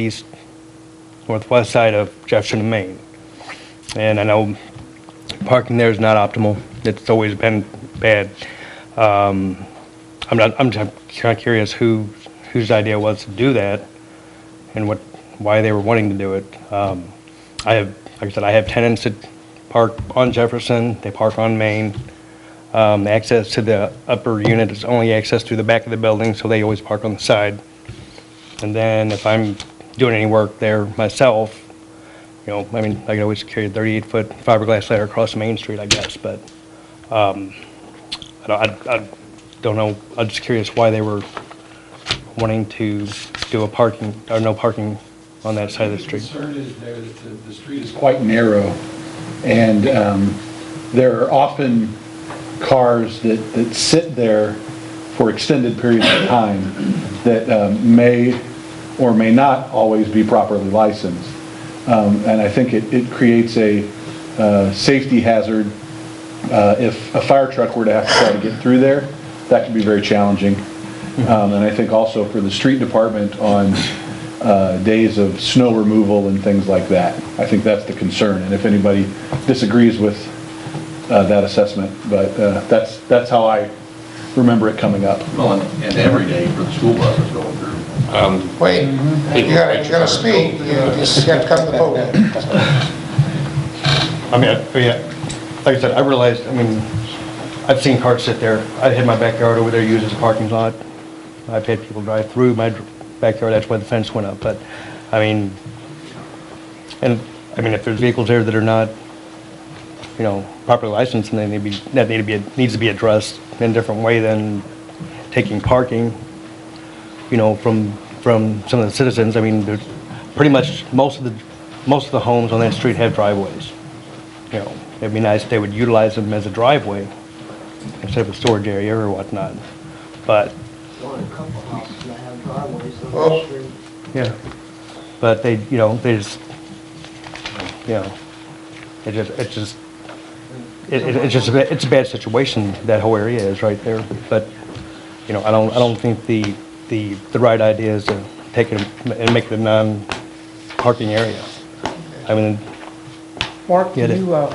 east, northwest side of Jefferson, and Maine. And I know parking there is not optimal. It's always been bad. Um, I'm not, I'm just kinda curious who, whose idea was to do that and what, why they were wanting to do it. Um, I have, like I said, I have tenants that park on Jefferson, they park on Main. Um, the access to the upper unit is only access through the back of the building, so they always park on the side. And then if I'm doing any work there myself, you know, I mean, I could always carry a 38-foot fiberglass ladder across Main Street, I guess, but um, I don't- I- I don't know, I'm just curious why they were wanting to do a parking, or no parking on that side of the street. concern is there that the, the street is quite narrow, and um, there are often cars that, that sit there for extended periods of time that um, may or may not always be properly licensed. Um, And I think it, it creates a uh, safety hazard. Uh, If a fire truck were to have to try to get through there, that could be very challenging. Um, And I think also for the street department on uh, days of snow removal and things like that. I think that's the concern, and if anybody disagrees with uh, that assessment, but uh, that's, that's how I remember it coming up. Well, and and every day for the school buses going through. Wait, you gotta, you gotta speak, you just gotta come to the podium. I mean, I- yeah, like I said, I realized, I mean, I've seen cars sit there. I had my backyard over there used as a parking lot. I've had people drive through my dr- backyard, that's why the fence went up, but, I mean, and, I mean, if there's vehicles there that are not, you know, properly licensed, and they need to be, that need to be, needs to be addressed in a different way than taking parking, you know, from, from some of the citizens. I mean, there's, pretty much, most of the, most of the homes on that street have driveways you know, it'd be nice if they would utilize them as a driveway instead of a storage area or whatnot. But, Well, a couple houses that have driveways on Well- the street. yeah, but they, you know, they just, you know, it just, it just, it, it- it's just, a ba- it's a bad situation, that whole area is right there. But, you know, I don't, I don't think the, the, the right idea is to take it and make it a non-parking area. I mean, Mark, do Get it. you, uh,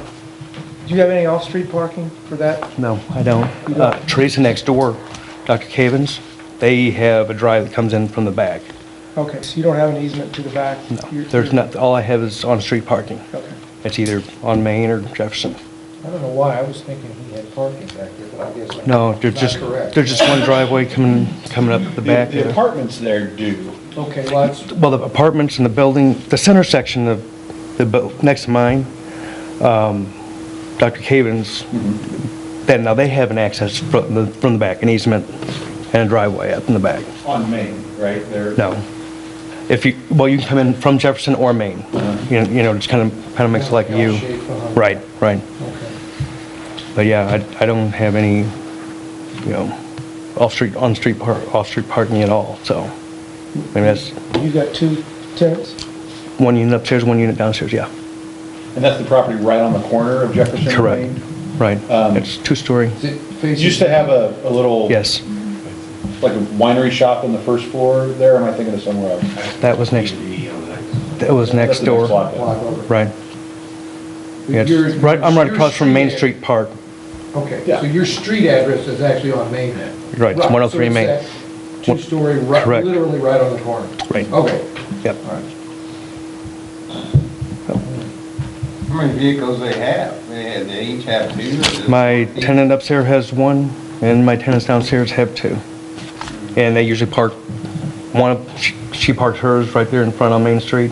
do you have any off-street parking for that? No, I don't. Uh, Teresa next door, Dr. Cavens, they have a drive that comes in from the back. Okay, so you don't have an easement to the back? No, You're- there's not, all I have is on-street parking. Okay. It's either on Main or Jefferson. I don't know why, I was thinking he had parking back there, but I guess. I'm No, there's just, Not correct. there's just one driveway coming, coming up the back. The apartments there do. Okay, well, that's, Well, the apartments and the building, the center section of the, bu- next to mine, um, Dr. Cavens, then, now they have an access from the, from the back, an easement and a driveway up in the back. On Main, right? They're- No. If you, well, you can come in from Jefferson or Maine. You know, you know, just kind of, kind of makes it like you. L-shaped behind. Right, right. Okay. But yeah, I, I don't have any, you know, off-street, on-street par, off-street parking at all, so. Maybe that's you got two tenants? one unit upstairs, one unit downstairs, yeah. And that's the property right on the corner of Jefferson and Correct, Main? right. Um, It's two-story, Is it It facing- used to have a, a little. yes. Like a winery shop on the first floor there, or am I thinking of somewhere else? That was next, that was next That's the next door, block block down. over? right. Yeah, it's Your- Right, I'm right your across from Main ad- Street Park, Okay, Yeah. so your street address is actually on Main then? Right, it's 103 so Main. that Two-story, right, Correct. literally right on the corner? Right. Okay, yep. all right. How many vehicles they have? They had, they each have two? or just- My tenant upstairs has one, and my tenants downstairs have two. And they usually park, one, of- she- she parks hers right there in front on Main Street,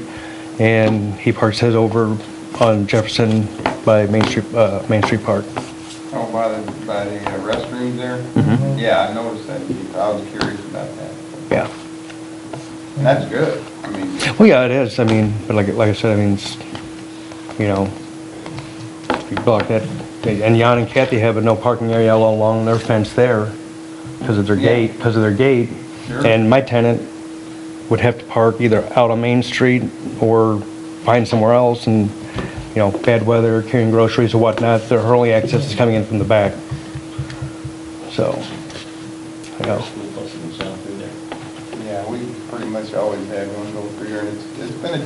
and he parks his over on Jefferson by Main Street, uh, Main Street Park. Oh, by the, by the uh, restrooms there? Yeah, I noticed that. I was curious about that. Yeah. And that's good. I mean, Well, yeah, it is, I mean, but like, like I said, I mean, it's, you know, you block that, and Jan and Kathy have a no parking area all along their fence there because of their Yeah. gate, because of their gate. Sure. And my tenant would have to park either out on Main Street or find somewhere else and, you know, bad weather, carrying groceries or whatnot, their only access is coming in from the back. So, you know, yeah, we pretty much always had one go through there and it's it's been a